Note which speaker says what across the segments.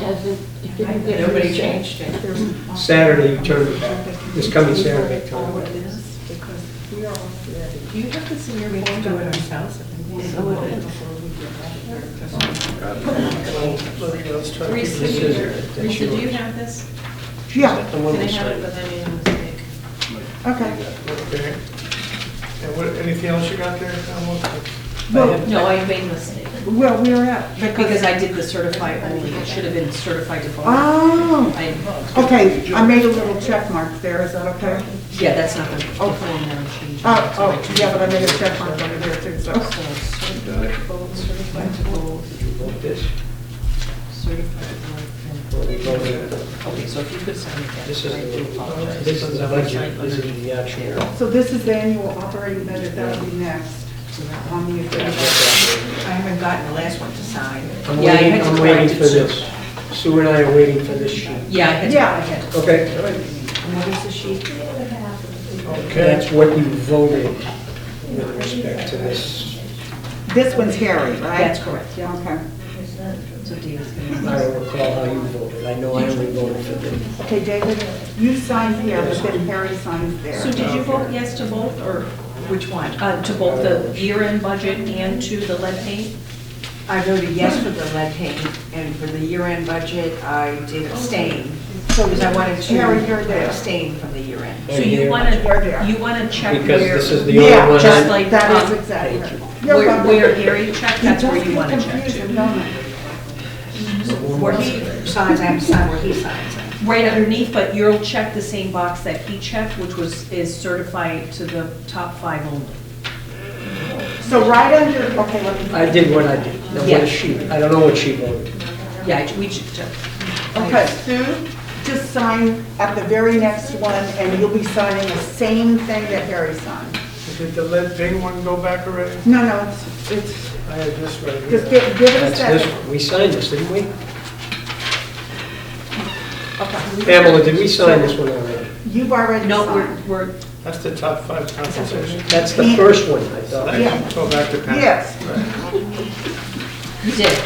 Speaker 1: hasn't, it didn't get.
Speaker 2: Nobody
Speaker 1: reset.
Speaker 2: changed it.
Speaker 3: Saturday, you turn it back. This coming Saturday, turn it back.
Speaker 2: Do you have this in your form? Do it ourselves. Reese, do you- Reese, do you have this?
Speaker 4: Yeah,
Speaker 3: The one
Speaker 2: Can I
Speaker 3: we
Speaker 2: have it,
Speaker 3: signed.
Speaker 2: but I made a mistake.
Speaker 4: okay.
Speaker 5: Okay. And what, anything else you got there? Tom? What-
Speaker 4: Well,
Speaker 2: No, I made a mistake.
Speaker 4: well, we're at,
Speaker 2: Because
Speaker 4: because,
Speaker 2: I did the certify only, it should have been certified to voter.
Speaker 4: oh,
Speaker 2: I,
Speaker 4: okay, I made a little check mark there, is that okay?
Speaker 2: yeah, that's not the, the form that I changed.
Speaker 4: Oh, oh, yeah, but I made a check mark under there too, so.
Speaker 2: So, certified to vote, certified to vote,
Speaker 3: Want this?
Speaker 2: certified to vote.
Speaker 3: Well, we voted it.
Speaker 2: and- Okay, so if you could sign it, I
Speaker 3: This
Speaker 2: do
Speaker 3: is,
Speaker 2: apologize.
Speaker 3: this is the budget, this is the actual.
Speaker 4: So this is the annual operating budget, that'll be next on the agenda.
Speaker 6: I haven't gotten the last one to sign.
Speaker 3: I'm
Speaker 2: Yeah, you
Speaker 3: waiting,
Speaker 2: had to
Speaker 3: I'm waiting
Speaker 2: correct it,
Speaker 3: for
Speaker 2: so-
Speaker 3: this. Sue and I are waiting for this sheet.
Speaker 2: Yeah, I had, to- I had. to-
Speaker 3: Okay?
Speaker 6: What is the sheet?
Speaker 3: That's what you voted with respect to this.
Speaker 4: This one's Harry, right?
Speaker 2: That's correct, yeah.
Speaker 4: Okay.
Speaker 2: So Dave's gonna.
Speaker 3: I don't recall how you voted. I know I only voted for this.
Speaker 4: Okay, David, you signed here, but then Harry signs there.
Speaker 2: So did you vote yes to both, or which one? Uh, To both the year-end budget and to the lead paint?
Speaker 6: I voted yes for the lead paint, and for the year-end budget, I did abstain. So because I wanted
Speaker 4: Harry, you're
Speaker 6: to
Speaker 4: there.
Speaker 6: abstain from the year-end.
Speaker 2: So you
Speaker 3: Here.
Speaker 2: want
Speaker 4: Right there.
Speaker 2: to, you want to check
Speaker 3: Because
Speaker 2: where,
Speaker 3: this is the
Speaker 4: Yeah,
Speaker 3: only one
Speaker 2: just
Speaker 3: I...
Speaker 2: like,
Speaker 4: That is
Speaker 2: um,
Speaker 4: exactly.
Speaker 3: Thank
Speaker 4: You're
Speaker 2: where
Speaker 4: welcome.
Speaker 2: where Harry checked, that's where you
Speaker 4: It
Speaker 2: want to
Speaker 4: does get
Speaker 2: check
Speaker 4: confusing,
Speaker 2: to.
Speaker 4: don't it?
Speaker 6: Where he signs, I have to sign where he signs.
Speaker 2: Right underneath, but you'll check the same box that he checked, which was, is certified to the top five only.
Speaker 4: So right under, okay, let me.
Speaker 3: I did what I did. Now,
Speaker 2: Yeah.
Speaker 3: what she, I don't know what she voted.
Speaker 2: Yeah, I- we checked. it.
Speaker 4: Okay, Sue, just sign at the very next one, and you'll be signing the same thing that Harry signed.
Speaker 5: Did the lead thing one go back already?
Speaker 4: No, no, it's, it's,
Speaker 5: I had this right here.
Speaker 4: just give, give it a
Speaker 3: That's this,
Speaker 4: second.
Speaker 3: we signed this, didn't we? Pamela, did we sign this one already?
Speaker 4: You've already
Speaker 2: No,
Speaker 4: signed.
Speaker 2: we're, we're,
Speaker 5: That's the top five compensation.
Speaker 3: That's the first one, I thought.
Speaker 4: Yeah.
Speaker 5: Go back to Pat.
Speaker 4: Yes.
Speaker 2: you did,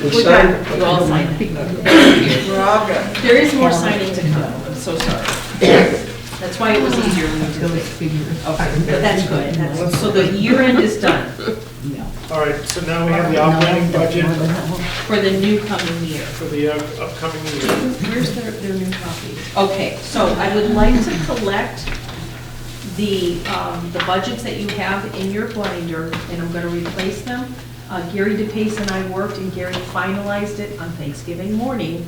Speaker 3: We
Speaker 4: We're
Speaker 3: signed,
Speaker 2: you all signed it.
Speaker 4: We're all good.
Speaker 2: There is more signing to come, I'm so sorry. That's why it was easier when we did it. Okay, but that's good, that's, so the year end is done
Speaker 5: All right, so now we have the operating budget
Speaker 2: for the new coming year.
Speaker 5: for the uh, upcoming year.
Speaker 2: Where's their, their new copies? Okay, so I would like to collect the, um, the budgets that you have in your binder, and I'm gonna replace them. Uh, Gary DePace and I worked, and Gary finalized it on Thanksgiving morning,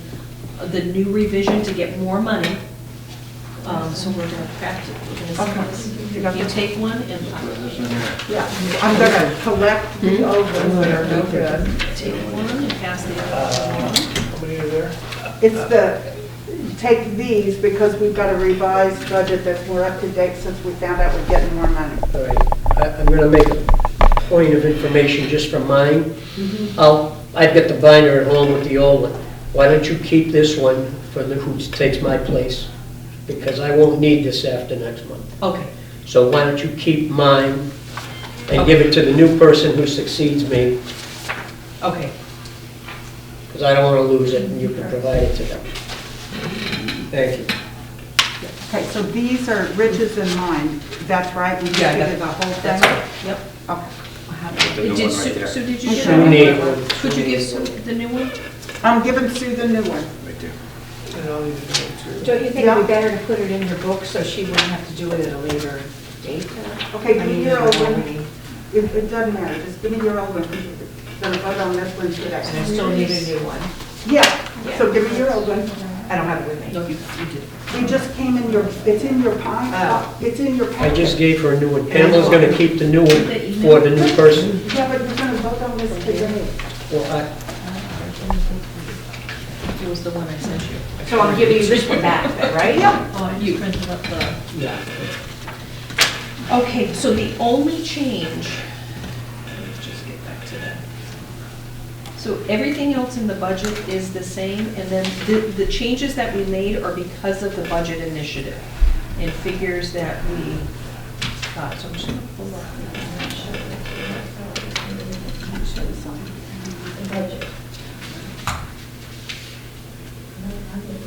Speaker 2: uh, the new revision to get more money. Um, so we're gonna craft it, we're gonna see
Speaker 4: You got
Speaker 2: this. You
Speaker 4: this?
Speaker 2: take one and uh,
Speaker 4: Yeah, I'm gonna collect the old ones that are no good.
Speaker 2: take one and pass the other one.
Speaker 5: How many are there?
Speaker 4: It's the, take these, because we've got a revised budget that's more up to date since we found out we're getting more money.
Speaker 3: all right. I- I'm going to make a point of information just from mine.
Speaker 2: Mm-hmm.
Speaker 3: I'll, I've got the binder at home with the old one. Why don't you keep this one for the, who takes my place? Because I won't need this after next month.
Speaker 2: Okay,
Speaker 3: So why don't you keep mine and give it to the new person who succeeds me,
Speaker 2: okay.
Speaker 3: because I don't want to lose it, and you can provide it to them. Thank you.
Speaker 4: Okay, so these are Rich's and mine, that's right? We just
Speaker 2: Yeah, I got
Speaker 4: did the whole
Speaker 2: That's
Speaker 4: thing?
Speaker 2: all, yep.
Speaker 4: Okay.
Speaker 2: Did Sue, Sue, did you get
Speaker 3: Sue need
Speaker 2: that one?
Speaker 3: one.
Speaker 2: Could you give Sue the new one?
Speaker 4: I'm giving Sue the new one.
Speaker 5: And I'll need to know too.
Speaker 6: Don't you
Speaker 4: think it'd be
Speaker 6: better to put it in her book so she wouldn't have to do it at a later date?
Speaker 4: Okay, give me your old one. It, it doesn't matter, just give me your old one. Gonna vote on this one
Speaker 6: And
Speaker 4: today.
Speaker 6: I still need a new one.
Speaker 4: Yeah, so give me your old one.
Speaker 6: I don't have it with me.
Speaker 2: No, you, you did.
Speaker 4: We just came in your, it's in your pile,
Speaker 6: Oh.
Speaker 4: it's in your
Speaker 3: I
Speaker 4: packet.
Speaker 3: just gave her a new one. Pamela's going to keep the new one for the new person.
Speaker 4: Yeah, but we're gonna vote on this today.
Speaker 3: Well,
Speaker 2: It was the one I sent you.
Speaker 6: So I'm giving you this one back, right? Yeah.
Speaker 2: Oh, you printed up the.
Speaker 3: I, yeah.
Speaker 2: Okay, so the only change, let's just get back to that. So everything else in the budget is the same, and then the, the changes that we made are because of the budget initiative and figures that we got, so I'm just gonna pull up.